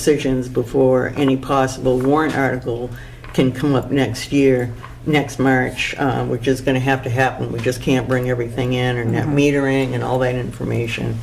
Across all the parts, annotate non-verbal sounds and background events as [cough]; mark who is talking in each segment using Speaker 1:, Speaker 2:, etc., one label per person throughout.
Speaker 1: decisions before any possible warrant article can come up next year, next March, uh, which is going to have to happen. We just can't bring everything in, or net metering and all that information.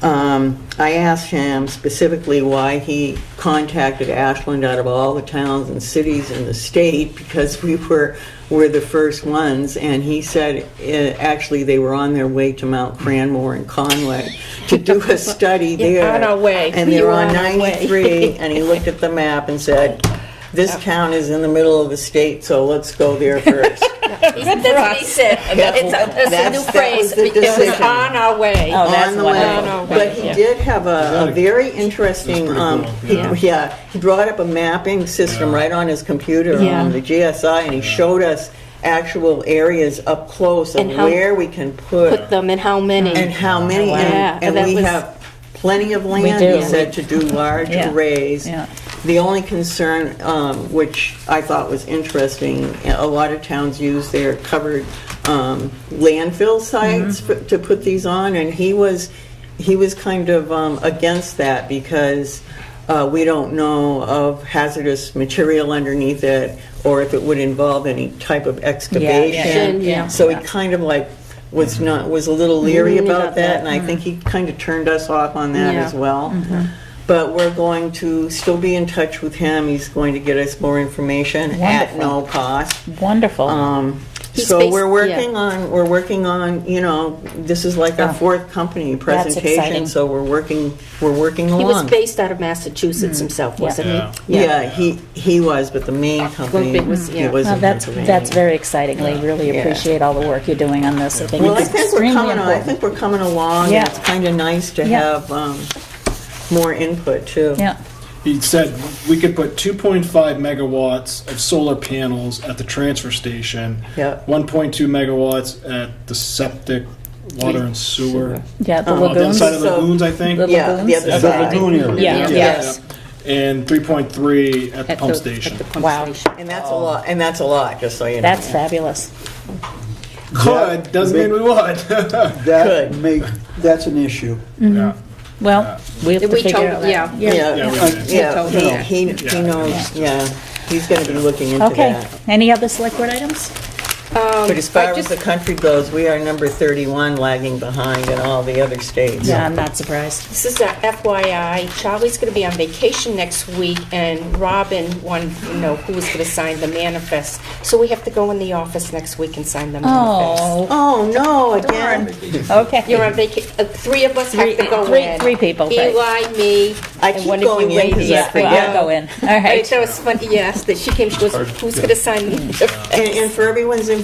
Speaker 1: Um, I asked him specifically why he contacted Ashland out of all the towns and cities in the state because we were, were the first ones, and he said, eh, actually, they were on their way to Mount Cranmore and Conway to do
Speaker 2: [laughs]
Speaker 1: a study
Speaker 2: You're
Speaker 1: there.
Speaker 2: on our way.
Speaker 1: And they
Speaker 2: You're
Speaker 1: were on
Speaker 2: on our way.
Speaker 1: 93, and he looked at the map and said, this town is in the middle of the state, so let's go there
Speaker 2: [laughs]
Speaker 1: first.
Speaker 3: That's what he said. It's a- It's a
Speaker 1: That's-
Speaker 3: new
Speaker 1: that was
Speaker 3: phrase.
Speaker 1: the
Speaker 2: It was
Speaker 1: decision.
Speaker 2: on our way.
Speaker 3: Oh, that's
Speaker 1: on the
Speaker 3: what
Speaker 1: way.
Speaker 3: I-
Speaker 2: On our way,
Speaker 1: But he
Speaker 2: yeah.
Speaker 1: did have a, a
Speaker 4: That's
Speaker 1: very interesting,
Speaker 4: pretty
Speaker 1: um,
Speaker 4: cool,
Speaker 1: he-
Speaker 2: yeah.
Speaker 1: yeah, he brought up a mapping system
Speaker 4: Yeah.
Speaker 1: right on his computer
Speaker 2: Yeah.
Speaker 1: on the GSI, and he showed us actual areas up close of
Speaker 5: And how-
Speaker 1: where we can
Speaker 5: put
Speaker 1: put
Speaker 5: them and how many.
Speaker 1: and how many,
Speaker 5: Yeah,
Speaker 1: and, and
Speaker 5: that
Speaker 1: we
Speaker 5: was-
Speaker 1: have plenty of land,
Speaker 2: do.
Speaker 1: he said, to do large
Speaker 2: Yeah.
Speaker 1: arrays.
Speaker 2: Yeah.
Speaker 1: The only concern, um, which I thought was interesting, a lot of towns use their covered um, landfill sites
Speaker 2: Mm-hmm.
Speaker 1: f- to put these on, and he was, he was kind of um, against that because uh, we don't know of hazardous material underneath it, or if it would involve any type of excavation.
Speaker 5: yeah.
Speaker 1: So he kind of like was not, was a little leery
Speaker 5: Mm,
Speaker 1: about
Speaker 5: about
Speaker 1: that,
Speaker 5: that, Mm-hmm.
Speaker 1: and I think he kind of turned us off on that
Speaker 5: Yeah. Mm-hmm.
Speaker 1: as well. But we're going to still be in touch with him. He's going to get us more information at
Speaker 2: Wonderful.
Speaker 1: no cost.
Speaker 2: Wonderful.
Speaker 1: Um,
Speaker 5: He's
Speaker 1: so
Speaker 5: based-
Speaker 1: we're working
Speaker 5: yeah. Oh.
Speaker 1: on, we're working on, you know, this is like our fourth company presentation,
Speaker 2: exciting.
Speaker 1: so we're working, we're working
Speaker 5: He was
Speaker 1: along.
Speaker 5: based out of Massachusetts
Speaker 2: Mm.
Speaker 5: himself, wasn't he?
Speaker 4: Yeah.
Speaker 1: Yeah, he, he was, but the main company,
Speaker 5: big was-
Speaker 1: he
Speaker 5: yeah. Oh,
Speaker 1: was
Speaker 2: Well,
Speaker 1: in
Speaker 2: that's,
Speaker 1: Pennsylvania.
Speaker 2: that's very exciting. We really
Speaker 1: Yeah.
Speaker 2: appreciate all the work you're doing on this. I think
Speaker 1: Well, I
Speaker 2: it's
Speaker 1: think we're
Speaker 2: extremely
Speaker 1: coming, I
Speaker 2: important.
Speaker 1: think we're coming along,
Speaker 2: Yeah.
Speaker 1: and it's kind of nice to
Speaker 2: Yeah.
Speaker 1: have um, more input, too.
Speaker 2: Yeah,
Speaker 4: He said we could put 2.5 megawatts of solar panels at the transfer station.
Speaker 1: Yep.
Speaker 4: 1.2 megawatts at the septic, water and sewer.
Speaker 2: yeah,
Speaker 1: Um,
Speaker 2: the
Speaker 4: Uh, the other
Speaker 2: lagoons.
Speaker 4: side of the
Speaker 1: So-
Speaker 4: lagoons, I think.
Speaker 2: The
Speaker 1: Yeah, the
Speaker 2: lagoons?
Speaker 1: other
Speaker 4: The
Speaker 1: side.
Speaker 4: lagoon area.
Speaker 2: Yeah.
Speaker 1: Yes.
Speaker 4: And 3.3 at the pump station.
Speaker 2: Wow.
Speaker 1: And that's a lot, and that's a lot, just so you know.
Speaker 2: That's fabulous.
Speaker 4: Could, doesn't mean we would. [laughs]
Speaker 6: That
Speaker 1: Good.
Speaker 6: make, that's an issue.
Speaker 1: Mm-hmm.
Speaker 4: Yeah.
Speaker 2: Well, we have to
Speaker 3: We
Speaker 2: figure
Speaker 3: told,
Speaker 2: out that.
Speaker 3: yeah.
Speaker 4: Yeah,
Speaker 1: Yeah,
Speaker 4: we did.
Speaker 1: yeah,
Speaker 3: Yeah.
Speaker 1: he- he, he knows, yeah, he's gonna be looking into
Speaker 2: Okay,
Speaker 1: that.
Speaker 2: any other select board items?
Speaker 1: But as far
Speaker 3: I
Speaker 1: as
Speaker 3: just-
Speaker 1: the country goes, we are number 31 lagging behind in all the other states.
Speaker 2: Yeah, I'm not surprised.
Speaker 3: This is a FYI, Charlie's going to be on vacation next week, and Robin wanted to know who was going to sign the manifest. So we have to go in the office next week and sign the manifest.
Speaker 2: Oh,
Speaker 1: Oh, no, again,
Speaker 2: okay.
Speaker 3: You're on vacation, three of us have to
Speaker 2: Three-
Speaker 3: go in.
Speaker 2: three- three people, right.
Speaker 3: Eli, me,
Speaker 1: I
Speaker 3: and
Speaker 1: keep
Speaker 3: one of you
Speaker 1: going in
Speaker 3: ladies.
Speaker 1: because I
Speaker 2: Yeah, well,
Speaker 1: forget.
Speaker 2: I'll go in. All
Speaker 3: I
Speaker 2: right.
Speaker 3: thought it was funny, yes, that she came, she goes, who's going to sign the manifest?
Speaker 1: And, and for everyone's information,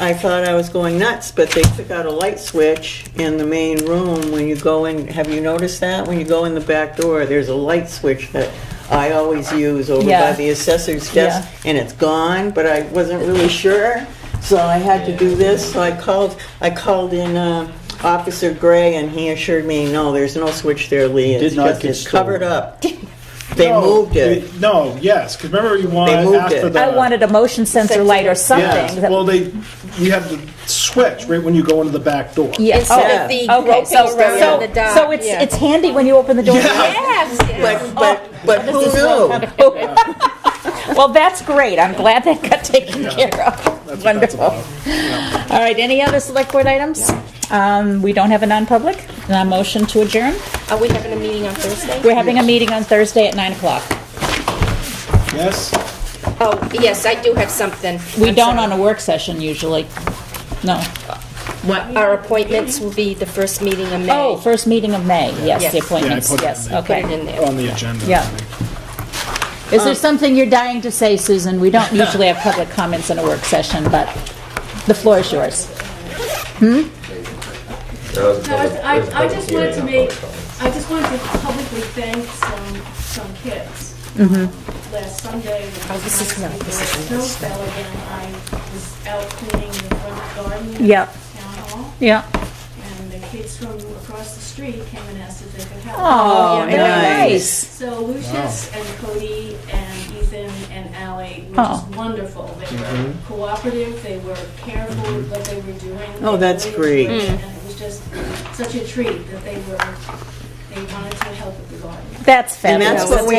Speaker 1: I thought I was going nuts, but they took out a light switch in the main room when you go in. Have you noticed that? When you go in the back door, there's a light switch that I always use over by
Speaker 2: Yeah.
Speaker 1: the assessor's desk, and it's gone, but I wasn't really sure, so I had to do this. So I called, I called in uh, Officer Gray, and he assured me, no, there's no switch there, Lee.
Speaker 6: Did
Speaker 1: It's
Speaker 6: not
Speaker 1: just,
Speaker 6: get
Speaker 1: it's covered
Speaker 6: stolen.
Speaker 1: up. They
Speaker 4: No,
Speaker 1: moved it.
Speaker 4: No, yes, because remember you want
Speaker 1: They moved
Speaker 4: after
Speaker 1: it.
Speaker 4: the.
Speaker 2: I wanted a motion sensor light or something.
Speaker 4: Yeah, well, they, you have to switch right when you go into the back door.
Speaker 2: Yeah,
Speaker 3: Instead
Speaker 1: Yeah.
Speaker 3: of the
Speaker 2: Oh. Okay,
Speaker 3: groping
Speaker 2: so,
Speaker 3: around
Speaker 2: so,
Speaker 3: the dock.
Speaker 2: so it's,
Speaker 3: yeah.
Speaker 2: it's handy when you open the door.
Speaker 3: Yes, yes.
Speaker 1: But, but, but
Speaker 2: Oh.
Speaker 1: who knew?
Speaker 2: [laughs] Well, that's great. I'm glad that got taken care of.
Speaker 4: That's what that's
Speaker 2: Wonderful.
Speaker 4: about.
Speaker 2: All right, any other select board items? Um, we don't have a non-public, and a motion to adjourn.
Speaker 3: Are we having a meeting on Thursday?
Speaker 2: We're having a meeting on Thursday at nine o'clock.
Speaker 4: Yes?
Speaker 3: Oh, yes, I do have something.
Speaker 2: We
Speaker 3: I'm
Speaker 2: don't on
Speaker 3: sorry.
Speaker 2: a work session usually. No.
Speaker 3: Our appointments will be the first meeting in May.
Speaker 2: Oh, first meeting of May. Yes,
Speaker 3: Yes.
Speaker 2: the
Speaker 3: Yeah, I
Speaker 2: appointments.
Speaker 4: put it
Speaker 2: Yes,
Speaker 4: in there.
Speaker 3: Put
Speaker 2: okay.
Speaker 3: it in Um, there.
Speaker 4: On the agenda.
Speaker 2: Yeah. Is there something you're dying to say, Susan? We don't usually have public comments in a work session, but the floor is yours.
Speaker 7: No, I, I- I just wanted to make, I just wanted to publicly thank some, some kids. Last Sunday, when it
Speaker 3: Mm-hmm. Oh, this is
Speaker 7: was
Speaker 3: not- this is
Speaker 7: snow fell again, I was out cleaning the front garden. at
Speaker 2: Yep.
Speaker 7: Town hall,
Speaker 2: Yeah.
Speaker 7: and the kids from across the street came and asked if they could help.
Speaker 2: Oh,
Speaker 3: yeah,
Speaker 2: very nice.
Speaker 7: So Lucius and Cody and Ethan and Ally were
Speaker 2: Oh.
Speaker 7: just wonderful. They were cooperative, they were careful with what they were doing.
Speaker 1: Oh, that's
Speaker 2: Mm.
Speaker 7: They really
Speaker 1: great.
Speaker 7: were, And it was just such a treat that they were
Speaker 8: They wanted to help with the garden.
Speaker 7: That's
Speaker 2: And that's
Speaker 7: fabulous.
Speaker 2: what we